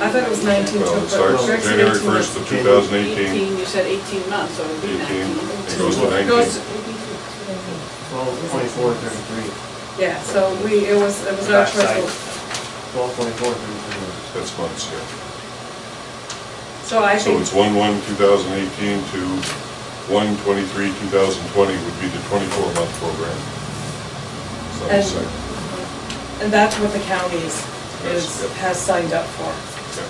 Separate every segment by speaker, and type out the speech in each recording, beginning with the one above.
Speaker 1: I thought it was nineteen too,
Speaker 2: Well, it
Speaker 1: but
Speaker 2: starts
Speaker 1: Greg said
Speaker 2: January
Speaker 1: eighteen months.
Speaker 2: first of two thousand eighteen,
Speaker 3: Eighteen, you said eighteen months, so it'd be
Speaker 2: eighteen,
Speaker 3: nineteen.
Speaker 2: it goes to
Speaker 1: It goes,
Speaker 2: nineteen.
Speaker 1: to-
Speaker 4: Twelve, twenty-four, thirty-three.
Speaker 1: yeah, so we, it was, it was our
Speaker 4: Backside.
Speaker 1: choice.
Speaker 4: Twelve, twenty-four, thirty-three.
Speaker 2: That's months, yeah.
Speaker 1: So I
Speaker 2: So
Speaker 1: think,
Speaker 2: it's one, one, two thousand eighteen to one, twenty-three, two thousand twenty would be the twenty-four month program. So
Speaker 1: And-
Speaker 2: it's like,
Speaker 1: and that's what the counties
Speaker 2: Yes,
Speaker 1: is,
Speaker 2: yep.
Speaker 1: has signed up for.
Speaker 2: yeah.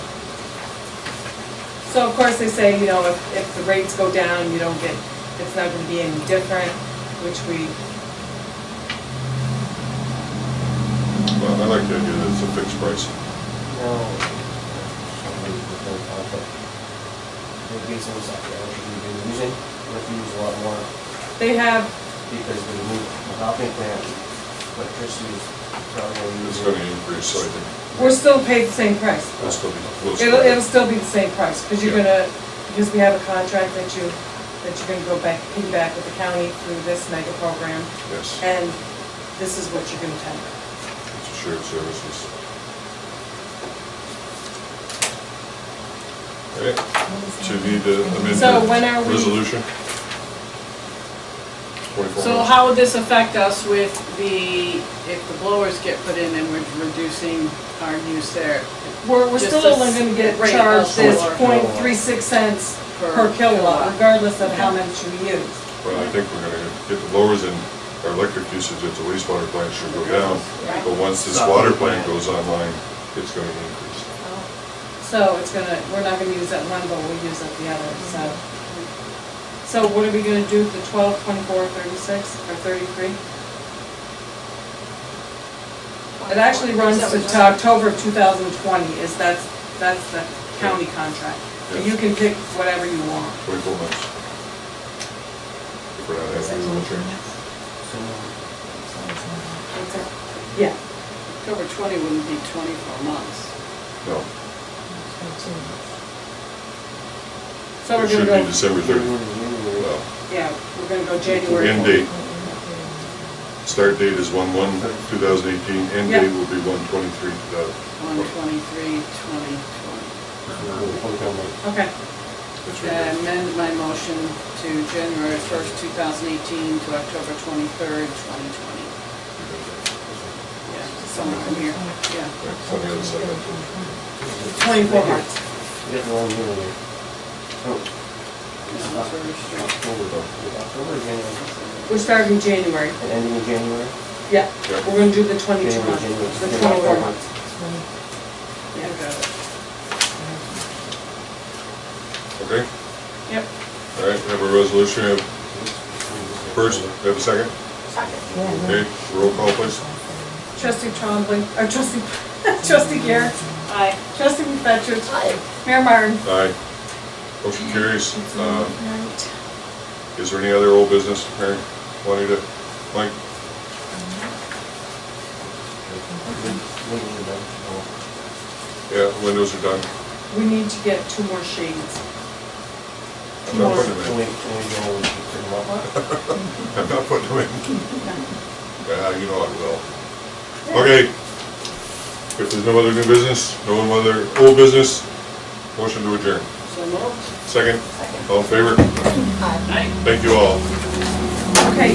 Speaker 1: So of course, they say, you know, if, if the rates go down, you don't get, it's not gonna be any different, which we,
Speaker 2: Well, I like the idea that it's a fixed price.
Speaker 4: No. It gives us that, uh, we've been using, we have to use a lot more
Speaker 1: they have,
Speaker 4: because we move the hopping plant, electricity is probably gonna use.
Speaker 2: It's gonna increase, so I think
Speaker 1: we're still paid the same price.
Speaker 2: we'll still be. we'll still-
Speaker 1: It'll, it'll still be the same price, because you're
Speaker 2: Yeah.
Speaker 1: gonna, because we have a contract that you, that you're gonna go back, piggyback with the county through this mega program,
Speaker 2: Yes,
Speaker 1: and this is what you're gonna tender.
Speaker 2: it's a shared services. Okay, so you need to amend
Speaker 1: So when are
Speaker 2: the
Speaker 1: we-
Speaker 2: resolution? Twenty-four
Speaker 3: So
Speaker 2: months.
Speaker 3: how would this affect us with the, if the blowers get put in and we're reducing our use there?
Speaker 1: We're, we're
Speaker 3: Just
Speaker 1: still
Speaker 3: this
Speaker 1: only gonna get
Speaker 3: rate
Speaker 1: charged
Speaker 3: of
Speaker 1: this
Speaker 3: solar.
Speaker 1: point three six cents
Speaker 3: Per
Speaker 1: per kilowatt,
Speaker 3: kilowatt.
Speaker 1: regardless of how much you use.
Speaker 2: Well, I think we're gonna get the lowers in our electric usage at the wastewater plant should go down, but once this water plant goes online, it's gonna increase.
Speaker 3: Oh.
Speaker 1: So it's gonna, we're not gonna use that one, but we'll use up the other, so.
Speaker 3: Mm-hmm.
Speaker 1: So what are we gonna do, the twelve, twenty-four, thirty-six, or thirty-three? It actually runs to to October of 2020, is that's, that's the county contract. But You can pick whatever you want.
Speaker 2: Twenty-four months. If we're not happy with the change.
Speaker 4: So,
Speaker 1: Yeah.
Speaker 3: October twenty wouldn't be twenty-four months.
Speaker 2: No,
Speaker 1: So we're
Speaker 2: it should
Speaker 1: gonna
Speaker 2: be
Speaker 1: go,
Speaker 2: December
Speaker 4: January,
Speaker 2: thirty.
Speaker 4: January.
Speaker 2: Well,
Speaker 1: yeah, we're gonna go January.
Speaker 2: end date, start date is one one, two thousand eighteen, end
Speaker 1: Yeah.
Speaker 2: date will be one twenty-three, two
Speaker 3: One
Speaker 2: thousand twenty.
Speaker 3: twenty-three, twenty twenty.
Speaker 1: Okay,
Speaker 2: That's
Speaker 3: I
Speaker 2: right.
Speaker 3: amend my motion to January first, two thousand eighteen to October twenty-third, twenty twenty. Yeah, somewhere from here, yeah.
Speaker 2: Right, it's on the other side of
Speaker 1: 24 months.
Speaker 4: You get the wrong year. So, it's
Speaker 3: Yeah, that's very
Speaker 4: October,
Speaker 3: strange.
Speaker 4: October, January,
Speaker 1: We're starting January,
Speaker 4: and ending in January.
Speaker 1: yeah.
Speaker 2: Yeah.
Speaker 1: We're gonna do the 22
Speaker 4: January,
Speaker 1: month,
Speaker 4: January,
Speaker 1: the
Speaker 4: January,
Speaker 1: 24
Speaker 4: months.
Speaker 1: month.
Speaker 3: Yeah, got it.
Speaker 2: it. Okay,
Speaker 1: Yep.
Speaker 2: all right, we have a resolution, we have first, we have a second? Okay, roll call please.
Speaker 1: Trustee Trombley, or trustee, trustee Garrett. Aye. Trustee McFetrich. Aye. Mayor Martin.
Speaker 2: Aye. Motion carries. Uh, Is there any other old business, Mary, Juanita, Mike? Yeah, windows are done.
Speaker 1: We need to get two more shades.
Speaker 2: I'm not putting
Speaker 4: Can
Speaker 2: them
Speaker 4: we,
Speaker 2: in.
Speaker 4: can we go and pick them up?
Speaker 2: I'm not putting them in. Yeah, you know I will. Okay. If there's no other new business, no other old business, motion to adjourn.
Speaker 3: So moved.
Speaker 2: Second, all in favor?
Speaker 3: Aye.
Speaker 2: Thank you all.